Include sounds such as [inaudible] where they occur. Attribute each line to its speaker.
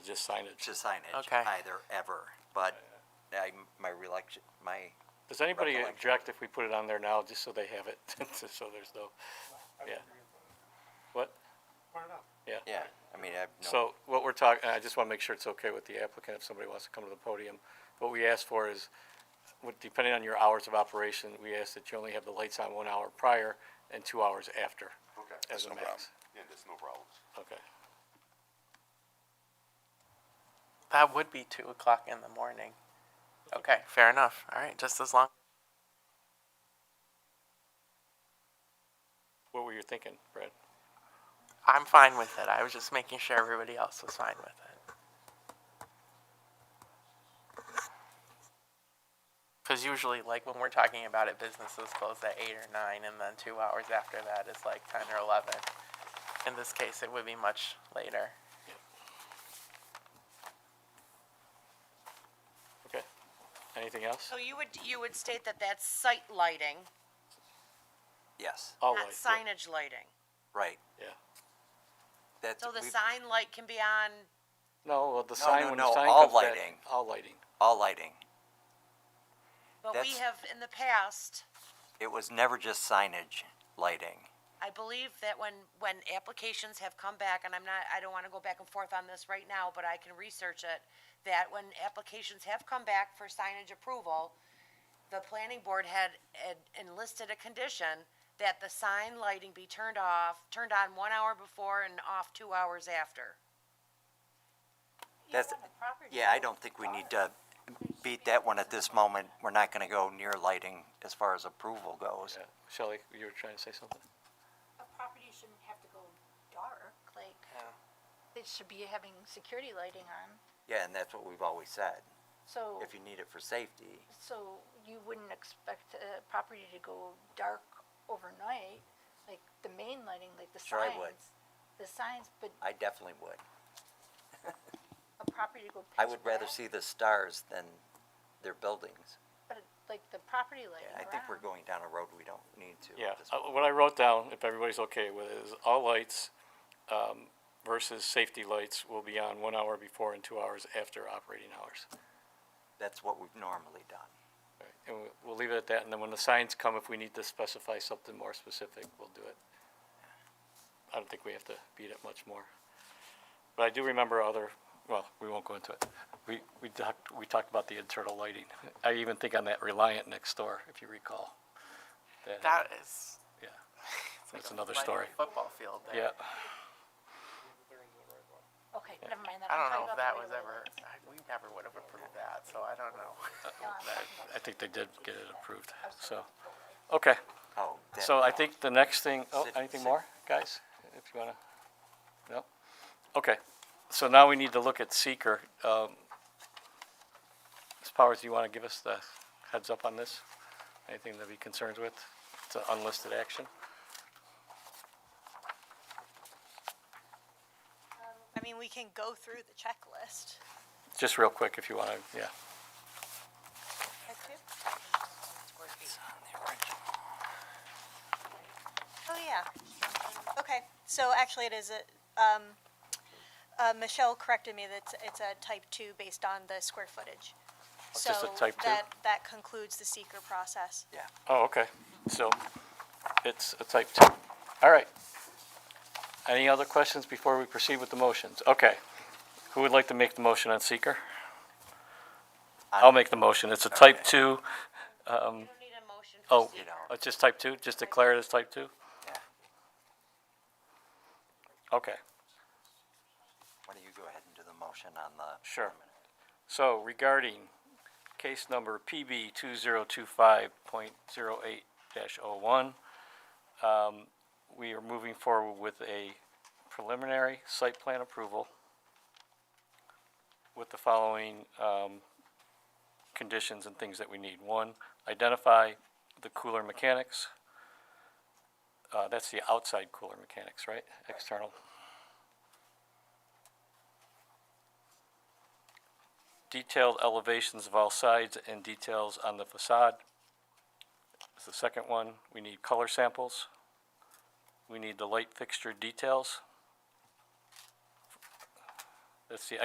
Speaker 1: Just signage.
Speaker 2: to signage.
Speaker 3: Okay.
Speaker 2: Either, ever, but I, my recollection, my,
Speaker 1: Does anybody
Speaker 2: Recollection.
Speaker 1: object if we put it on there now, just so they have it, [laughs] just so there's no, yeah. What? Yeah.
Speaker 2: yeah, I mean, I have no,
Speaker 1: So what we're talking, I just want to make sure it's okay with the applicant if somebody wants to come to the podium. What we ask for is, what- depending on your hours of operation, we ask that you only have the lights on one hour prior and two hours after
Speaker 4: Okay.
Speaker 1: as
Speaker 4: That's
Speaker 1: a
Speaker 4: no problem.
Speaker 1: max.
Speaker 4: Yeah, that's no problem.
Speaker 1: Okay.
Speaker 3: That would be two o'clock in the morning. Okay, fair enough. All right, just as long.
Speaker 1: What were you thinking, Brad?
Speaker 3: I'm fine with it. I was just making sure everybody else was fine with it. Because usually, like when we're talking about it, businesses close at eight or nine, and then two hours after that is like ten or eleven. In this case, it would be much later.
Speaker 1: Okay. Anything else?
Speaker 5: So you would, you would state that that's site lighting,
Speaker 2: yes,
Speaker 1: All
Speaker 5: not
Speaker 1: lights, yeah,
Speaker 5: signage lighting.
Speaker 2: right,
Speaker 1: Yeah.
Speaker 2: that's,
Speaker 5: So the
Speaker 2: we-
Speaker 5: sign light can be on,
Speaker 1: No, well, the
Speaker 2: No,
Speaker 1: sign,
Speaker 2: no,
Speaker 1: when the
Speaker 2: no,
Speaker 1: sign
Speaker 2: all
Speaker 1: comes back-
Speaker 2: lighting.
Speaker 1: All lighting.
Speaker 2: all lighting.
Speaker 5: but we
Speaker 2: That's-
Speaker 5: have in the past,
Speaker 2: It was never just signage, lighting.
Speaker 5: I believe that when, when applications have come back, and I'm not, I don't wanna go back and forth on this right now, but I can research it, that when applications have come back for signage approval, the planning board had had enlisted a condition that the sign lighting be turned off, turned on one hour before and off two hours after.
Speaker 2: That's, yeah, I don't think we need to beat that one at this moment. We're not gonna go near lighting as far as approval goes.
Speaker 1: Yeah. Shelley, you were trying to say something?
Speaker 6: a property shouldn't have to go dark, like, it should be having security lighting on,
Speaker 2: Yeah, and that's what we've always said,
Speaker 6: so,
Speaker 2: if you need it for safety.
Speaker 6: so you wouldn't expect a property to go dark overnight, like the main lighting, like the
Speaker 2: Sure I
Speaker 6: signs.
Speaker 2: would.
Speaker 6: The signs, but
Speaker 2: I definitely would.
Speaker 6: a property to go pitch
Speaker 2: I would rather
Speaker 6: black,
Speaker 2: see the stars than their buildings.
Speaker 6: But like the property lighting
Speaker 2: I
Speaker 6: around.
Speaker 2: think we're going down a road we don't need to. at
Speaker 1: Yeah,
Speaker 2: this
Speaker 1: uh,
Speaker 2: point.
Speaker 1: what I wrote down, if everybody's okay with it, is all lights um, versus safety lights will be on one hour before and two hours after operating hours.
Speaker 2: That's what we've normally done.
Speaker 1: Alright, And we- we'll leave it at that, and then when the signs come, if we need to specify something more specific, we'll do it. I don't think we have to beat it much more. But I do remember other, well, we won't go into it. We, we talked, we talked about the internal lighting. I even think on that Reliant next door, if you recall.
Speaker 3: That is.
Speaker 1: Yeah,
Speaker 3: it's
Speaker 1: that's
Speaker 3: a
Speaker 1: another
Speaker 3: lighted
Speaker 1: story.
Speaker 3: Football field. There.
Speaker 1: Yeah,
Speaker 6: Okay, never mind that.
Speaker 3: I
Speaker 6: I'm
Speaker 3: don't know
Speaker 6: talking
Speaker 3: if that
Speaker 6: about the
Speaker 3: was
Speaker 6: regular
Speaker 3: ever.
Speaker 6: lights.
Speaker 3: I, we never would have approved that, so I don't know.
Speaker 6: No, I'm talking about-
Speaker 1: I think they did get it approved, so, okay.
Speaker 2: Oh. that-
Speaker 1: So I think the next thing, oh,
Speaker 2: Sit-
Speaker 1: anything
Speaker 2: sit.
Speaker 1: more, guys? If you wanna, no? Okay, so now we need to look at seeker. Um, Ms. Powers, do you wanna give us the heads up on this? Anything to be concerned with? It's an unlisted action?
Speaker 7: I mean, we can go through the checklist.
Speaker 1: Just real quick, if you wanna, yeah.
Speaker 7: Oh, yeah. Okay, so actually it is a, um, uh, Michelle corrected me that it's- it's a type two based on the square footage.
Speaker 1: It's just a
Speaker 7: So
Speaker 1: type two?
Speaker 7: that- That concludes the seeker process.
Speaker 2: Yeah.
Speaker 1: Oh, okay, so it's a type two. All right. Any other questions before we proceed with the motions? Okay. Who would like to make the motion on seeker? I'll make the motion. It's a type
Speaker 2: Okay.
Speaker 1: two,
Speaker 5: You don't need a motion
Speaker 1: oh,
Speaker 5: for
Speaker 2: You know.
Speaker 1: it's just type two, just declare it as type two?
Speaker 2: Yeah.
Speaker 1: Okay,
Speaker 2: Why don't you go ahead and do the motion on the.
Speaker 1: sure. So regarding case number PB two zero two five point zero eight dash oh one, um, we are moving forward with a preliminary site plan approval with the following, um, conditions and things that we need. One, identify the cooler mechanics. Uh, that's the outside cooler mechanics, right? External. detailed elevations of all sides and details on the facade. Is the second one, we need color samples. We need the light fixture details. That's the